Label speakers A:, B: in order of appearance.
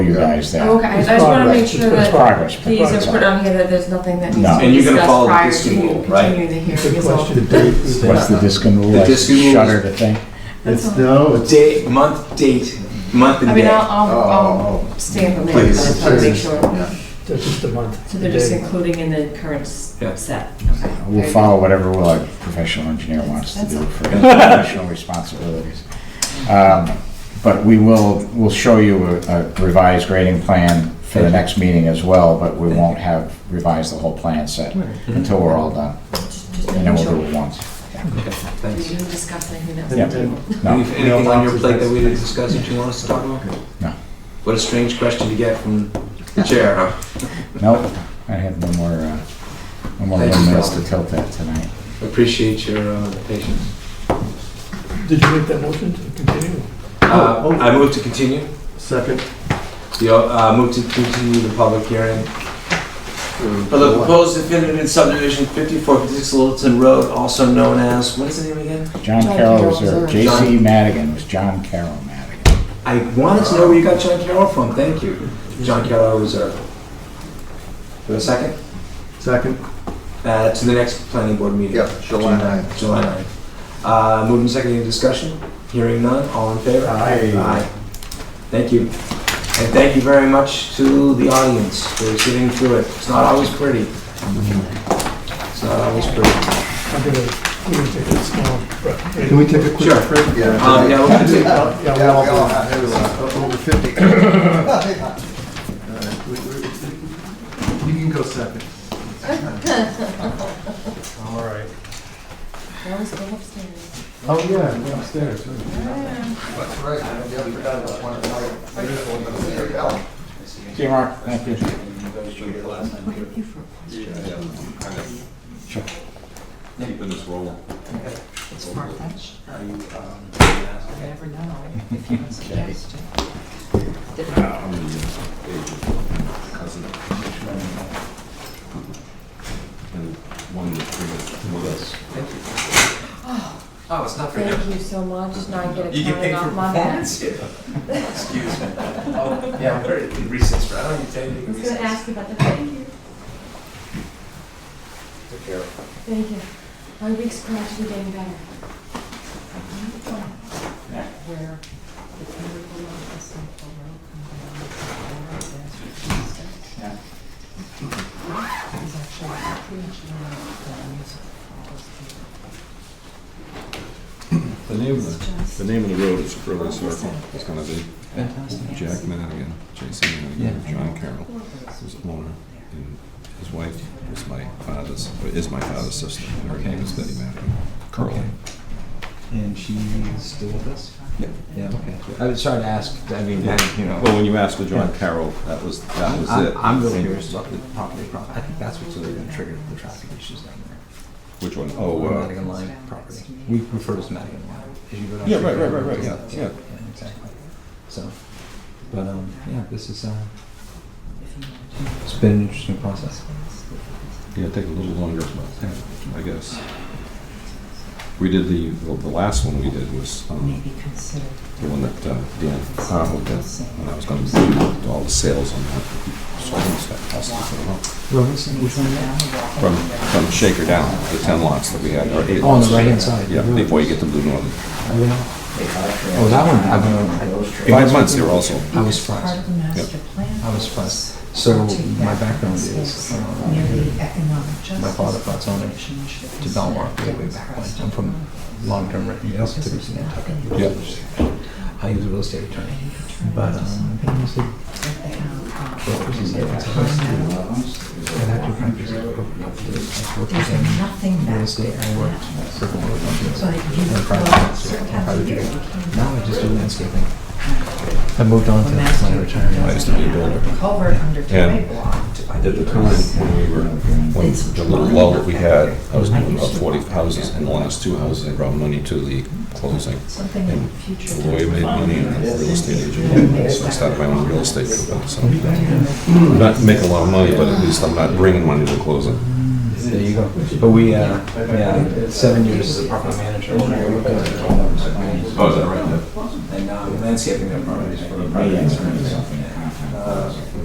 A: you guys that.
B: Okay, I
C: It's
B: just want to make
C: progress.
B: sure
C: It's
B: that
A: Progress. but
B: these are
A: it's-
B: put on here, that there's nothing that
A: No.
B: needs to
A: And
B: be
D: you're gonna follow
B: discussed
D: the
B: prior to
D: Diskin rule,
B: continuing
D: right?
B: the hearing.
C: Good
B: is all.
C: question. Date is
A: What's the
C: that-
A: Diskin rule?
D: The
A: Like
D: Diskin rule is-
A: Shutter to think?
C: It's, no, it's,
D: Date, month, date, month and
B: I
D: day.
B: mean, I'll, I'll,
D: Oh,
B: I'll stay up later, but I
D: Please,
B: just want to make
D: please.
B: sure.
D: Yeah.
C: that's uh, just a month.
B: So they're just
C: Date.
B: including in the current s-
D: Yeah.
B: set, okay.
A: We'll
B: Very
A: follow whatever will our professional engineer wants to do for his professional responsibilities. Um, But we will, we'll show you a- a revised grading plan for the next meeting as well, but we won't have revised the whole plan set until we're all done.
B: good. Just- just
A: And then we'll
B: making
A: do
B: sure.
A: it once.
D: Okay,
B: We
D: thanks.
B: didn't discuss anything that's.
A: Yeah. No,
D: Any- Anything on your plate that we didn't discuss that you want us to talk about?
A: No.
D: What a strange question to get from the chair, huh?
A: no, I have no more, uh, no more
D: Thank you,
A: minutes to
D: Robert.
A: tilt at tonight.
D: Appreciate your uh, patience.
C: Did you make that motion to continue?
D: Uh,
C: oh.
D: I move to continue,
C: Second.
D: the, uh, move to continue the public hearing For the proposed definitive subdivision 5456 Littleton Road, also known as, what is the name again?
A: John
B: John
A: Carroll
B: Carroll
A: was there,
B: was there.
A: J.C. Madigan was John Carroll Madigan.
D: I wanted to know where you got John Carroll from, thank you. John Carroll Reserve. For a second,
C: Second.
D: uh, to the next planning board meeting.
E: Yeah, July 9th.
D: July 9th. Uh, Moving second, any discussion? Hearing none, all in favor?
C: Aye.
D: Thank you. And thank you very much to the audience for sitting through it. It's not always pretty. It's not always pretty.
C: I'm gonna, we're gonna take this small break.
F: Can we take a quick
D: Sure.
F: break?
D: Um, Yeah, we're gonna take
C: Yeah, yeah,
E: Yeah, we all
C: we'll-
E: have,
F: Over 50. You can go second.
C: All right.
B: That was go upstairs.
F: Oh, yeah, we're upstairs. right.
E: that's right. Yeah, I forgot about one of the- There you go.
A: See you, Mark. Thank you.
G: Keeping this rolling.
B: Smart fetch. You never know um, if you have suggestions.
G: Cousin. And one with three with us.
D: Oh, it's not for you.
B: Thank you so much, now I get a
D: You get
B: count
D: paid for
B: off my back.
D: performance here. Excuse me. Oh, yeah, we're in recess, right? I don't need to tell you
B: I
D: to
B: was gonna
D: recess.
B: ask you about the thank you. Thank you. My week's gradually getting better. Where the beautiful of the Central Road comes down to the Florida Desert
A: Yeah.
B: East. It's actually pretty much known as the music of
G: The name
B: all those
G: of
B: people.
G: the,
B: It's
G: the
B: just
G: name of the road is Curly Circle. It's gonna be Jack Madigan, Jason Madigan, John Carroll was owner, and his wife was my father's, or is my father's sister. And her name is Betty Madigan. Curly.
D: And she's still with us?
G: Yeah.
D: Yeah, okay. I was trying to ask, I mean, I- you know.
G: Well, when you asked for John Carroll, that was, that was
D: I'm-
G: it.
D: I'm really
G: And-
D: curious about the property problem. I think that's what's really gonna trigger the traffic issues down there.
G: Which one? Oh, uh,
D: Madigan Line property. We refer to it as Madigan Line. As you go down
G: yeah,
D: through
G: right, right,
D: the-
G: right, right, yeah, yeah.
D: Exactly. So, but, um, yeah, this is, uh, it's been an interesting process.
G: Yeah, it'd take a little longer, but, yeah, I guess. We did the, well, the last one we did was um,
B: Maybe consider.
G: the one that uh, Dan Carl did. And I was going to do all the sales on that. So I was that cost us a lot. From, from Shaker down, the 10 lots that we had, or eight
D: On
G: lots.
D: the right-hand side.
G: Yeah, before you get to Blue Northern.
D: Oh, that one, I don't know.
G: Five months there also.
D: I was surprised.
H: Part of the master plan.
D: I was surprised. So my background is,
H: Near
D: um,
H: the economic justice.
D: my father brought zoning
H: Commission
D: to Belmont way, way back when. I'm from long-term rentals,
H: Because there's
D: typically Nantucket.
H: nothing.
G: Yeah.
D: I was a real estate attorney,
H: You turn
D: but,
H: into
D: um,
H: something
D: I was a
H: that they have, uh,
D: brokers and
H: time
D: different
H: now.
D: I had to practice. I worked
H: There's
D: in
H: nothing
D: real
H: back
D: estate,
H: there.
D: I worked for the Lord companies.
H: But you,
D: and private
H: well,
D: sector,
H: certain
D: private
H: times of year
D: trade.
H: you can't.
D: Now I just do landscaping. I moved on to my retirement.
G: I used to be a builder.
H: Culvert under
G: And
H: two-way block.
G: At the time, when we were, when the little lull that we had, I was doing about 40 houses, and the last two houses, I brought money to the closing.
H: Something in the future.
G: The lawyer made money and I'm a real estate agent, so I started my own real estate company, so. I'm Not making a lot of money, but at least I'm not bringing money to closing.
D: There you go. But we, uh, yeah, seven years as a property manager. uh, Oh, is that right? And now I'm landscaping their properties for the private insurance.
A: Something. doesn't.